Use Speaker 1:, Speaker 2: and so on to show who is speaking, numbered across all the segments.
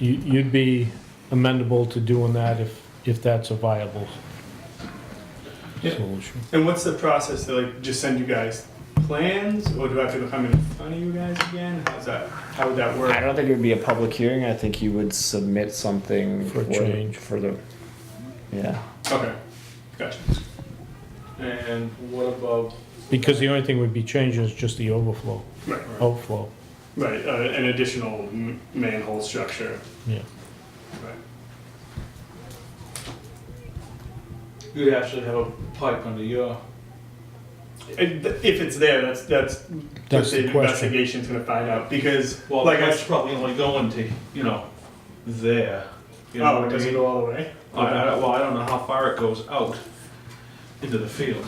Speaker 1: You, you'd be amendable to doing that if, if that's a viable
Speaker 2: Yeah.
Speaker 1: solution.
Speaker 2: And what's the process to like just send you guys plans, or do I have to come in front of you guys again? How's that? How would that
Speaker 3: I
Speaker 2: work?
Speaker 3: don't think it would be a public hearing. I think you would submit something
Speaker 1: For a change.
Speaker 3: for the. Yeah.
Speaker 2: Okay, gotcha. And what about
Speaker 1: Because the only thing we'd be changing is just the overflow,
Speaker 2: right,
Speaker 1: outflow,
Speaker 2: right uh, an additional m- manhole structure?
Speaker 1: yeah.
Speaker 2: Right.
Speaker 4: You'd actually have a pipe under your.
Speaker 2: And th- If it's there, that's that's,
Speaker 1: That's
Speaker 2: what the,
Speaker 1: the question.
Speaker 2: investigation's gonna find out because
Speaker 4: Well,
Speaker 2: like I
Speaker 4: that's probably only going to, you know, there. You know
Speaker 2: oh,
Speaker 4: what
Speaker 2: does
Speaker 4: I
Speaker 2: it
Speaker 4: mean?
Speaker 2: go all the way?
Speaker 4: I, I, don't- well, I don't know how far it goes out into the field.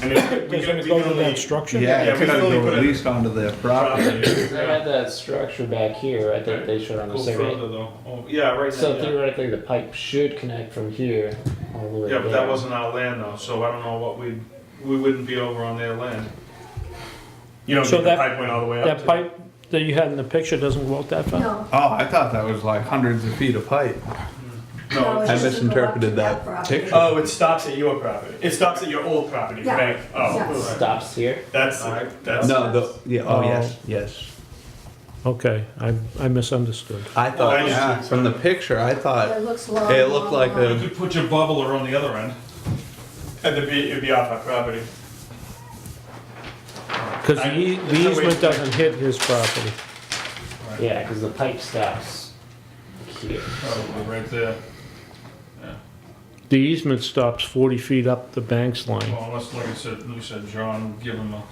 Speaker 2: I mean, we
Speaker 1: Because when
Speaker 2: can,
Speaker 1: it
Speaker 2: we
Speaker 1: goes
Speaker 2: can
Speaker 1: in
Speaker 2: only
Speaker 1: that structure?
Speaker 5: Yeah,
Speaker 2: Yeah,
Speaker 5: it
Speaker 2: we
Speaker 5: could
Speaker 2: can only
Speaker 5: go
Speaker 2: put
Speaker 5: at
Speaker 2: it-
Speaker 5: least onto their property.
Speaker 6: They had that structure back here, I think they showed on the
Speaker 4: Go
Speaker 6: survey.
Speaker 4: further though. Oh, yeah, right
Speaker 6: So
Speaker 4: there, yeah.
Speaker 6: theoretically, the pipe should connect from here all the way
Speaker 4: Yeah, but
Speaker 6: there.
Speaker 4: that wasn't our land though, so I don't know what we'd, we wouldn't be over on their land.
Speaker 2: you know
Speaker 1: So
Speaker 2: the
Speaker 1: that-
Speaker 2: pipe went all the way up.
Speaker 1: That
Speaker 2: to-
Speaker 1: pipe that you had in the picture doesn't go out that far?
Speaker 7: No,
Speaker 5: Oh, I thought that was like hundreds of feet of pipe.
Speaker 7: no, it's
Speaker 5: I
Speaker 7: just to go up to
Speaker 5: misinterpreted that
Speaker 7: property.
Speaker 5: picture.
Speaker 2: Oh, it stops at your property. It stops at your old property,
Speaker 7: Yeah.
Speaker 2: right? Oh,
Speaker 7: Yes.
Speaker 6: Stops here.
Speaker 2: that's that's
Speaker 5: No, the yeah.
Speaker 1: Oh.
Speaker 5: Oh, yes, yes.
Speaker 1: Okay, I, I misunderstood.
Speaker 5: I thought
Speaker 2: I just-
Speaker 5: yeah, from the picture, I
Speaker 7: It
Speaker 5: thought
Speaker 7: looks long.
Speaker 5: It looked like
Speaker 7: long,
Speaker 5: a-
Speaker 4: You could put your bubbler on the other end.
Speaker 2: And it'd be, it'd be off our property.
Speaker 1: Because the ea-
Speaker 2: I- it's a
Speaker 1: the
Speaker 2: waste
Speaker 1: easement
Speaker 2: of time.
Speaker 1: doesn't hit his property.
Speaker 6: Yeah, because the pipe stops here.
Speaker 4: Probably right there.
Speaker 1: The easement stops 40 feet up the banks line.
Speaker 4: Well, unless, like I said, Lou said, John, give him a,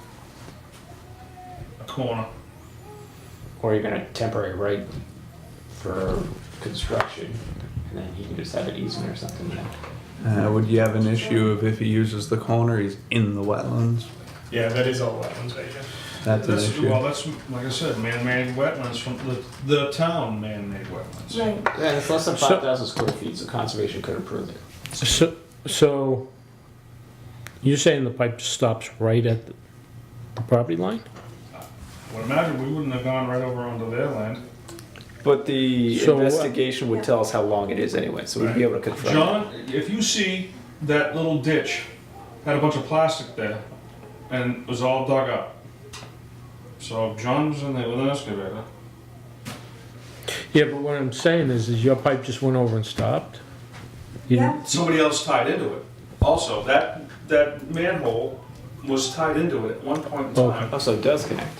Speaker 4: a corner.
Speaker 6: Or you're gonna temporary right for construction, and then he can just have an easement or something. yeah.
Speaker 5: uh, would you have an issue of if he uses the corner, he's in the wetlands?
Speaker 2: Yeah, that is all wetlands right here.
Speaker 5: That's an
Speaker 4: That's,
Speaker 5: issue.
Speaker 4: well, that's, like I said, man-made wetlands from the, the town man-made wetlands.
Speaker 7: Right,
Speaker 6: Yeah, and it's less than
Speaker 1: So-
Speaker 6: 5,000 square feet, so conservation could approve it.
Speaker 1: So, so you're saying the pipe stops right at the property line?
Speaker 4: Well, imagine we wouldn't have gone right over onto their land.
Speaker 3: But the
Speaker 1: So what-
Speaker 3: investigation would tell us how long it is anyway, so we'd be able to confirm.
Speaker 4: John, if you see that little ditch, had a bunch of plastic there, and it was all dug up. So John was in there with an excavator.
Speaker 1: Yeah, but what I'm saying is, is your pipe just went over and stopped? You-
Speaker 7: yeah,
Speaker 4: Somebody else tied into it. Also, that, that manhole was tied into it at one point in
Speaker 1: Okay.
Speaker 4: time.
Speaker 3: Oh, so it does connect.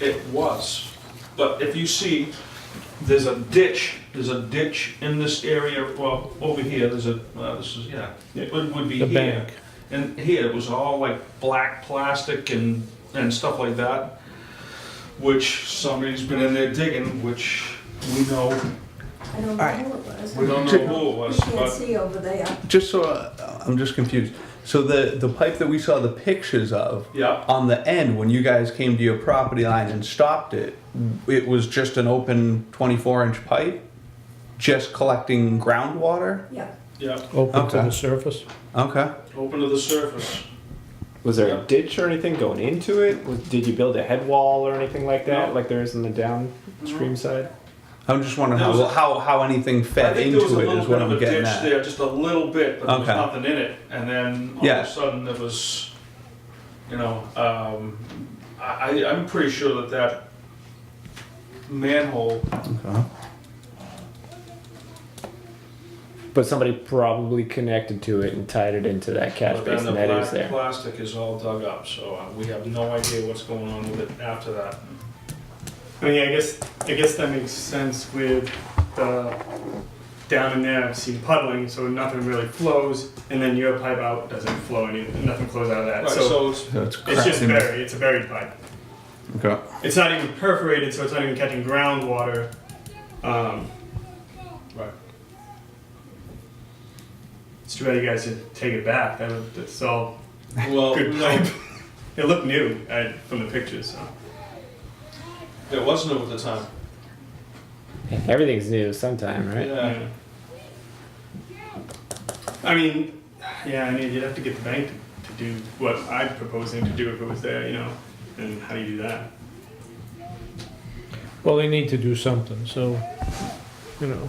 Speaker 4: It was, but if you see, there's a ditch, there's a ditch in this area, well, over here, there's a, well, this is, yeah, it would would be
Speaker 1: The
Speaker 4: here.
Speaker 1: bank.
Speaker 4: And here, it was all like black plastic and, and stuff like that, which somebody's been in there digging, which we know,
Speaker 7: I don't know who it was.
Speaker 4: we don't know who it was,
Speaker 7: You can't
Speaker 4: but
Speaker 7: see over there.
Speaker 5: Just so uh, I'm just confused. So the the pipe that we saw the pictures of
Speaker 4: yeah,
Speaker 5: on the end when you guys came to your property line and stopped it, it was just an open 24 inch pipe, just collecting groundwater.
Speaker 7: Yeah,
Speaker 4: yeah,
Speaker 1: Open to
Speaker 5: Okay.
Speaker 1: the surface?
Speaker 5: Okay.
Speaker 4: open to the surface.
Speaker 3: Was there a ditch or anything going into it? Was, did you build a head wall or anything like that,
Speaker 4: No.
Speaker 3: like there is in the downstream side?
Speaker 5: I'm just wondering
Speaker 4: There
Speaker 5: how,
Speaker 4: was a-
Speaker 5: how, how anything
Speaker 4: I
Speaker 5: fed
Speaker 4: think there was a
Speaker 5: into it
Speaker 4: little
Speaker 5: is what
Speaker 4: bit of
Speaker 5: I'm
Speaker 4: a
Speaker 5: getting
Speaker 4: ditch
Speaker 5: at.
Speaker 4: there, just a little bit, but there was
Speaker 5: Okay.
Speaker 4: nothing in it, and then all
Speaker 5: Yeah.
Speaker 4: of a sudden there was, you know, um, I, I- I'm pretty sure that that manhole,
Speaker 5: Okay.
Speaker 3: But somebody probably connected to it and tied it into that catch
Speaker 4: but then the
Speaker 3: basin that is
Speaker 4: black
Speaker 3: there.
Speaker 4: plastic is all dug up, so uh, we have no idea what's going on with it after that.
Speaker 2: I mean, I guess, I guess that makes sense with the, down in there, I've seen puddling, so nothing really flows, and then your pipe out doesn't flow any, nothing flows out of that,
Speaker 4: Right,
Speaker 2: so
Speaker 4: so it's,
Speaker 5: So it's,
Speaker 2: it's just
Speaker 5: cracking-
Speaker 2: buried, it's a buried pipe.
Speaker 5: Okay.
Speaker 2: It's not even perforated, so it's not even catching groundwater. Um,
Speaker 4: right,
Speaker 2: it's too bad you guys didn't take it back, that was, that's all
Speaker 4: well,
Speaker 2: good
Speaker 4: no,
Speaker 2: pipe. It looked new, I, from the pictures, so.
Speaker 4: it wasn't over the time,
Speaker 3: Everything's new sometime, right?
Speaker 4: yeah.
Speaker 2: I mean, yeah, I mean, you'd have to get the bank to, to do what I'm proposing to do if it was there, you know, and how do you do that?
Speaker 1: Well, they need to do something, so you know.